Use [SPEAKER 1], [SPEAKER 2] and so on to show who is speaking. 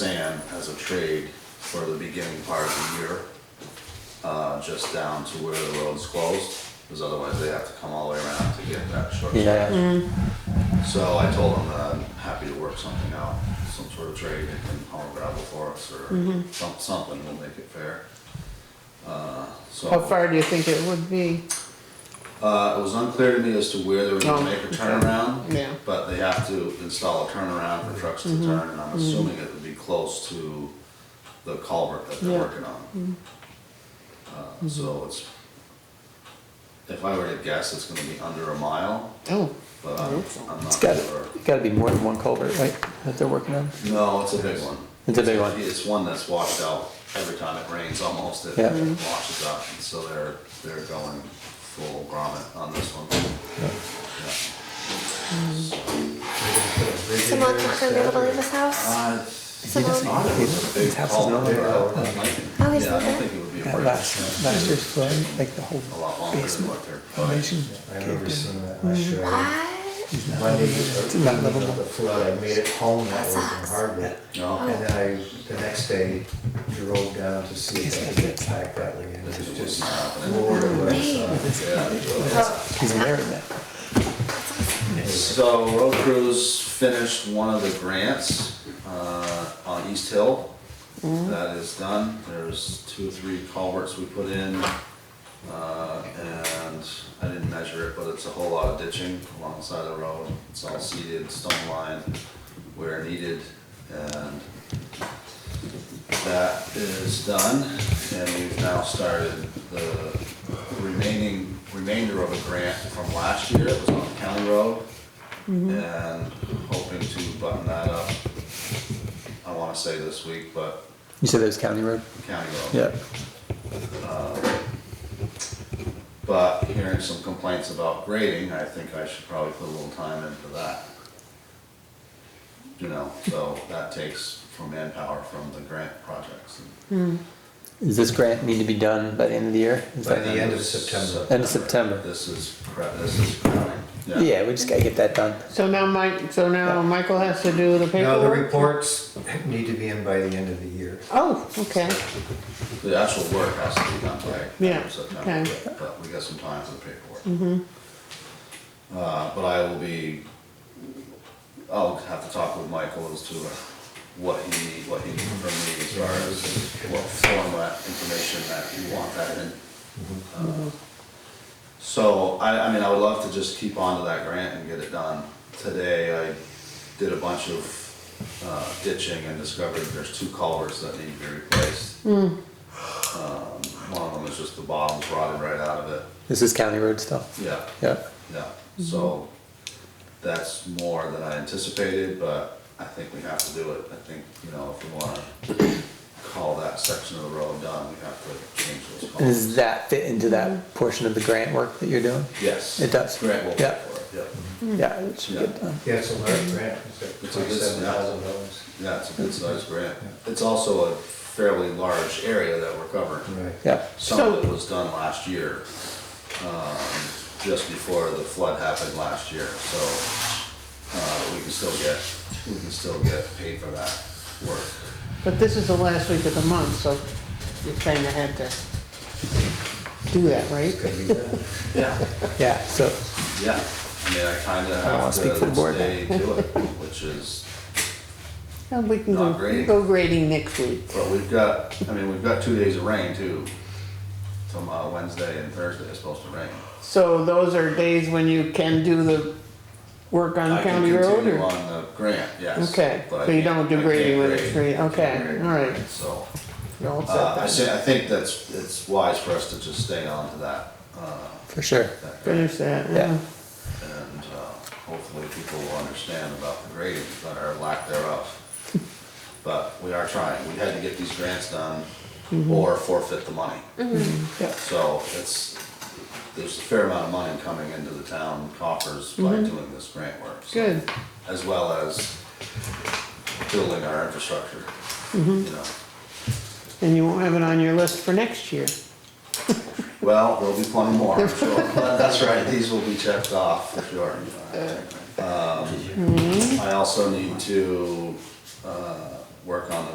[SPEAKER 1] Sam as a trade for the beginning part of the year. Uh, just down to where the road's closed, because otherwise they have to come all the way around to get that short.
[SPEAKER 2] Yeah,
[SPEAKER 1] So I told him that I'm happy to work something out, some sort of trade, they can haul gravel for us or
[SPEAKER 3] Mm-hmm.
[SPEAKER 1] some- something, we'll make it fair. Uh, so.
[SPEAKER 3] How far do you think it would be?
[SPEAKER 1] Uh, it was unclear to me as to where they were gonna
[SPEAKER 3] Oh,
[SPEAKER 1] make a
[SPEAKER 3] okay.
[SPEAKER 1] turnaround.
[SPEAKER 3] Yeah. Mm-hmm.
[SPEAKER 1] But they have to install a turnaround for trucks to turn, and I'm assuming it would be close to the culvert that they're
[SPEAKER 3] Yeah. Mm-hmm.
[SPEAKER 1] working on. Uh, so it's, if I were to guess, it's gonna be under a mile,
[SPEAKER 3] Oh,
[SPEAKER 1] but I'm,
[SPEAKER 3] hope so.
[SPEAKER 1] I'm not
[SPEAKER 2] it's got,
[SPEAKER 1] sure.
[SPEAKER 2] it's got to be more than one culvert, right, that they're working on?
[SPEAKER 1] No, it's a big one.
[SPEAKER 2] It's a big one.
[SPEAKER 1] It's one that's washed out every time it rains, almost it
[SPEAKER 2] Yeah.
[SPEAKER 3] Mm-hmm.
[SPEAKER 2] Mhm.
[SPEAKER 1] washes up, and so they're, they're going full grommet on this one. Yeah.
[SPEAKER 4] Someone not gonna be able to leave his house?
[SPEAKER 1] Uh,
[SPEAKER 2] He doesn't-
[SPEAKER 4] Someone?
[SPEAKER 2] he- His house is not
[SPEAKER 1] culvert,
[SPEAKER 2] there.
[SPEAKER 1] uh, that might-
[SPEAKER 4] Oh, he's
[SPEAKER 1] Yeah, I
[SPEAKER 4] not
[SPEAKER 1] don't
[SPEAKER 4] there?
[SPEAKER 1] think it would be a
[SPEAKER 2] That
[SPEAKER 1] break,
[SPEAKER 2] last, last year's flood, like the whole
[SPEAKER 1] a lot longer than
[SPEAKER 2] basement
[SPEAKER 1] what they're.
[SPEAKER 2] foundation
[SPEAKER 5] I
[SPEAKER 2] caved
[SPEAKER 5] remember
[SPEAKER 2] in.
[SPEAKER 5] seeing that last year.
[SPEAKER 4] What?
[SPEAKER 5] Monday,
[SPEAKER 2] not
[SPEAKER 5] the evening of
[SPEAKER 2] livable.
[SPEAKER 5] the flood, I made it home that was in Harvard.
[SPEAKER 1] No,
[SPEAKER 5] And then I, the next day, drove down to see if I could get back that way. And it was
[SPEAKER 1] it's
[SPEAKER 5] just
[SPEAKER 1] not happening.
[SPEAKER 5] Lord of us.
[SPEAKER 2] He's married now.
[SPEAKER 1] So road crews finished one of the grants, uh, on East Hill. That is done. There's two, or three culverts we put in. Uh, and I didn't measure it, but it's a whole lot of ditching alongside the road. It's all seeded, stone lined where needed. And That is done, and we've now started the remaining, remainder of a grant from last year, it was on County Road.
[SPEAKER 2] Mm-hmm.
[SPEAKER 1] And hoping to button that up, I wanna say this week, but
[SPEAKER 2] You said that was County Road?
[SPEAKER 1] County Road.
[SPEAKER 2] Yeah,
[SPEAKER 1] But hearing some complaints about grading, I think I should probably put a little time into that. You know, so that takes from manpower from the grant projects.
[SPEAKER 2] does this grant need to be done by the end of the year? Is
[SPEAKER 5] By
[SPEAKER 2] that-
[SPEAKER 5] the end of September.
[SPEAKER 2] End of September.
[SPEAKER 1] This is, cra- this is crowding.
[SPEAKER 2] Yeah, we just gotta get that done.
[SPEAKER 3] so now Mike, so now Michael has to do the
[SPEAKER 5] Now, the
[SPEAKER 3] paperwork?
[SPEAKER 5] reports need to be in by the end of the year.
[SPEAKER 3] Oh, okay,
[SPEAKER 1] The actual work has to be done by
[SPEAKER 3] Yeah,
[SPEAKER 1] September,
[SPEAKER 3] okay.
[SPEAKER 1] but- but we got some time for the paperwork. Mm-hmm. Uh, but I will be, I'll have to talk with Michael as to what he, what he needs from me as far as what format information that you want that in. Uh, So, I, I mean, I would love to just keep on to that grant and get it done. Today, I did a bunch of uh, ditching and discovered there's two culverts that need to be replaced. Um, One of them is just the bottom's rotted right out of it.
[SPEAKER 2] This is County Road stuff.
[SPEAKER 1] Yeah,
[SPEAKER 2] Yeah,
[SPEAKER 1] yeah.
[SPEAKER 2] Mm-hmm.
[SPEAKER 1] So that's more than I anticipated, but I think we have to do it. I think, you know, if we wanna call that section of the road done, we have to change those
[SPEAKER 2] and does
[SPEAKER 1] columns.
[SPEAKER 2] that fit into that portion of the grant work that you're doing?
[SPEAKER 1] Yes.
[SPEAKER 2] It does.
[SPEAKER 1] Grant will pay
[SPEAKER 2] Yeah. Mm-hmm.
[SPEAKER 1] for it, yeah.
[SPEAKER 2] Yeah, it should get done.
[SPEAKER 5] Yeah, it's a large grant, it's like
[SPEAKER 1] It's a good-
[SPEAKER 5] twenty-seven thousand dollars.
[SPEAKER 1] Yeah, it's a good sized grant. It's also a fairly large area that we're covering.
[SPEAKER 5] Right.
[SPEAKER 2] Yeah,
[SPEAKER 1] Some of it was done last year, um, just before the flood happened last year, so, uh, we can still get, we can still get paid for that work.
[SPEAKER 3] but this is the last week of the month, so you kinda had to do that, right?
[SPEAKER 5] Could be done.
[SPEAKER 1] Yeah.
[SPEAKER 2] yeah, so,
[SPEAKER 1] Yeah, I mean, I kinda
[SPEAKER 2] don't wanna
[SPEAKER 1] have
[SPEAKER 2] speak for the
[SPEAKER 1] to
[SPEAKER 2] board.
[SPEAKER 1] stay to it, which is,
[SPEAKER 3] And we can
[SPEAKER 1] Not
[SPEAKER 3] go,
[SPEAKER 1] grading.
[SPEAKER 3] go grading next week.
[SPEAKER 1] but we've got, I mean, we've got two days of rain too. From, uh, Wednesday and Thursday is supposed to rain.
[SPEAKER 3] So those are days when you can do the work on
[SPEAKER 1] I can
[SPEAKER 3] County Road,
[SPEAKER 1] continue
[SPEAKER 3] or?
[SPEAKER 1] On the grant, yes.
[SPEAKER 3] Okay,
[SPEAKER 1] but I
[SPEAKER 3] so you
[SPEAKER 1] can't-
[SPEAKER 3] don't do
[SPEAKER 1] I can't
[SPEAKER 3] grading when it's
[SPEAKER 1] grade.
[SPEAKER 3] free,
[SPEAKER 1] I can't
[SPEAKER 3] okay,
[SPEAKER 1] grade,
[SPEAKER 3] all right.
[SPEAKER 1] So,
[SPEAKER 3] No, it's
[SPEAKER 1] Uh, I
[SPEAKER 3] not
[SPEAKER 1] say,
[SPEAKER 3] done.
[SPEAKER 1] I think that's, it's wise for us to just stay on to that, uh,
[SPEAKER 2] for sure.
[SPEAKER 1] that grant,
[SPEAKER 3] Finish that,
[SPEAKER 2] Yeah.
[SPEAKER 3] yeah.
[SPEAKER 1] and, uh, hopefully people will understand about the grading, but our lack thereof. But we are trying, we had to get these grants done or forfeit the money.
[SPEAKER 2] Yeah.
[SPEAKER 1] So it's, there's a fair amount of money coming into the town coffers by doing this grant work. so-
[SPEAKER 3] Good.
[SPEAKER 1] As well as building our infrastructure, you know.
[SPEAKER 3] And you won't have it on your list for next year.
[SPEAKER 1] Well, there'll be plenty more, I'm sure. That's right, these will be checked off for sure. Um, I also need to, uh, work on the